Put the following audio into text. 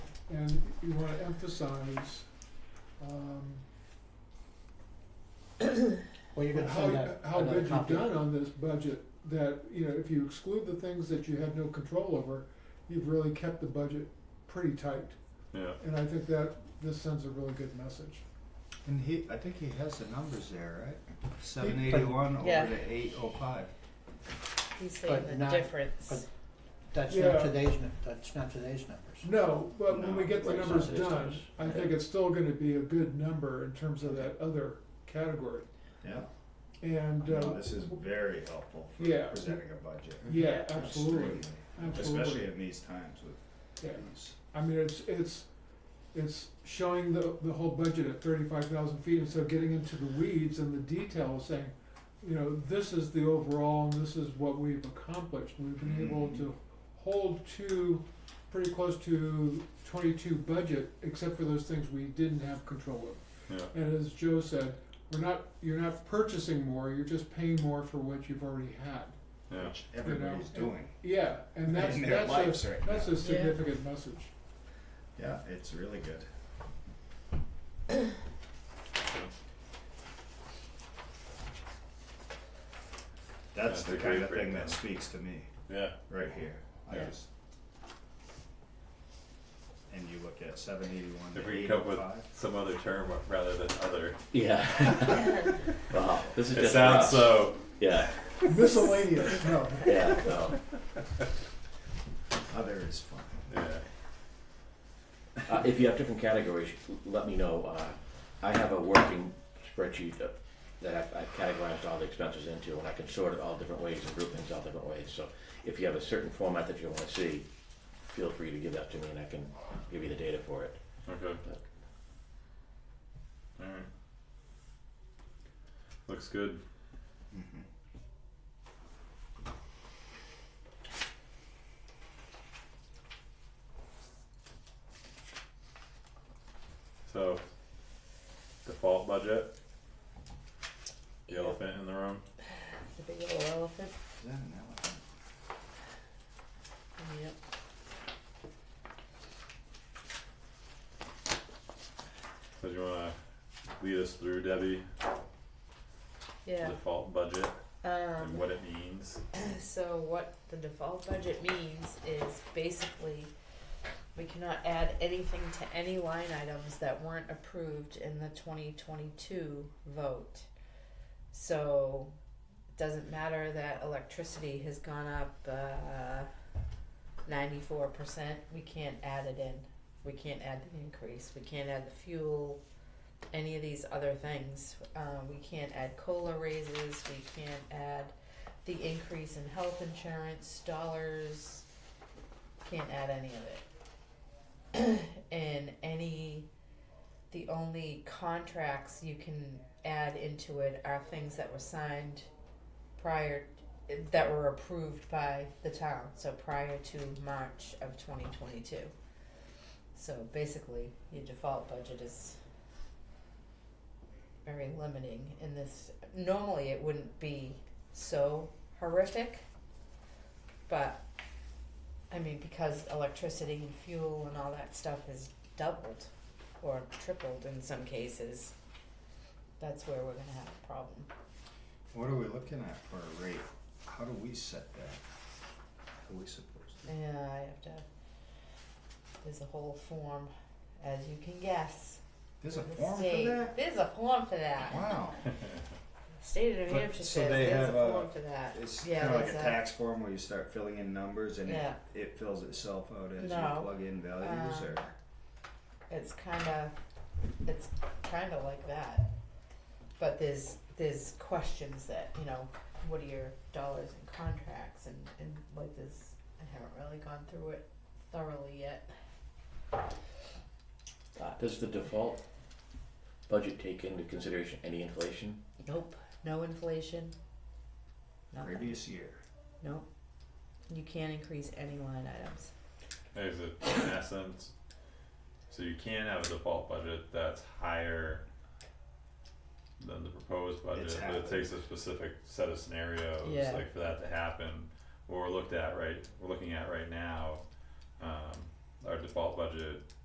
you wanna emphasize, um, Well, you're gonna how, send out how another good you've copy. done on this budget, that, you know, if you exclude the things that you had no control over, you've really kept the budget pretty tight. Yeah. And I think that this sends a really good message. And he, I think he has the numbers there, right? Seven He- eighty-one Yeah. over to eight oh five. He's saying But the not- difference. That's Yeah. not today's, nu- that's not today's numbers. No, but when we No, get the right, numbers it's not done, those. I think it's still gonna be a good number in terms of that other category. Yeah, And, no, uh, this is very helpful for Yeah. presenting a budget. yeah, absolutely, Extremely. Especially absolutely, in these times with yeah. these. I mean, it's, it's, it's showing the, the whole budget at thirty-five thousand feet, and so getting into the weeds and the details, saying, you know, this is the overall, and this is what we've accomplished, we've been Mm-hmm. able to hold to, pretty close to twenty-two budget, except for those things we didn't have control over. Yeah. And as Joe said, we're not, you're not purchasing more, you're just paying more for what you've already had. Yeah. which everybody's You know, doing. Yeah, and that's, In their that's lives a, right now. that's a significant message. Yeah, it's really good. That's That's the a kind great of thing breakdown. that speaks to me, Yeah. right here. I Yeah. just. And you look at seven eighty-one If to we eight come up oh with five. some other term rather than other, Yeah. wow. This is it just sounds for us. so. Yeah. Miscellaneous, no. Yeah. No. Other is fine. Yeah. Uh, if you have different categories, let me know. Uh, I have a working spreadsheet of, that I've, I've categorized all the expenses into, and I can sort it all different ways and group things all different ways. So if you have a certain format that you want to see, feel free to give that to me, and I can give you the data for it. Okay. But All right. Looks good. Mm-hmm. Mhm. So, default budget. The elephant in the room. The big little elephant. Is that an elephant? Yep. So, do you want to lead us through Debbie? Yeah. Default budget and Um, what it means. so what the default budget means is basically we cannot add anything to any line items that weren't approved in the twenty twenty-two vote. So it doesn't matter that electricity has gone up, uh, ninety-four percent, we can't add it in. We can't add the increase, we can't add the fuel, any of these other things. Uh, we can't add COLA raises, we can't add the increase in health insurance, dollars, can't add any of it. And any, the only contracts you can add into it are things that were signed prior, that were approved by the town, so prior to March of twenty twenty-two. So basically, your default budget is very limiting in this, normally it wouldn't be so horrific. But I mean, because electricity and fuel and all that stuff is doubled or tripled in some cases, that's where we're gonna have a problem. What are we looking at for a rate? How do we set that? How are we supposed to? Yeah, I have to. There's a whole form, as you can guess. There's a the form for state- that? There's a form for that. Wow. State of New But- Hampshire so says they there's a have a- form for that. It's Yeah, kind of like there's a tax form where you start filling in numbers and Yeah. it, it fills itself out as No. you plug in values Um, or it's kind of it's kind of like that but there's there's questions that you know what are your dollars and contracts and and like this i haven't really gone through it thoroughly yet uh, does the default budget take into consideration any inflation? nope no inflation nothing previous year. nope you can't increase any line items Is it in essence? So you can have a default budget that's higher than the proposed budget, It's but it happened. takes a specific set of scenarios, Yeah. like for that to happen. What we're looked at right, we're looking at right now, um, our default budget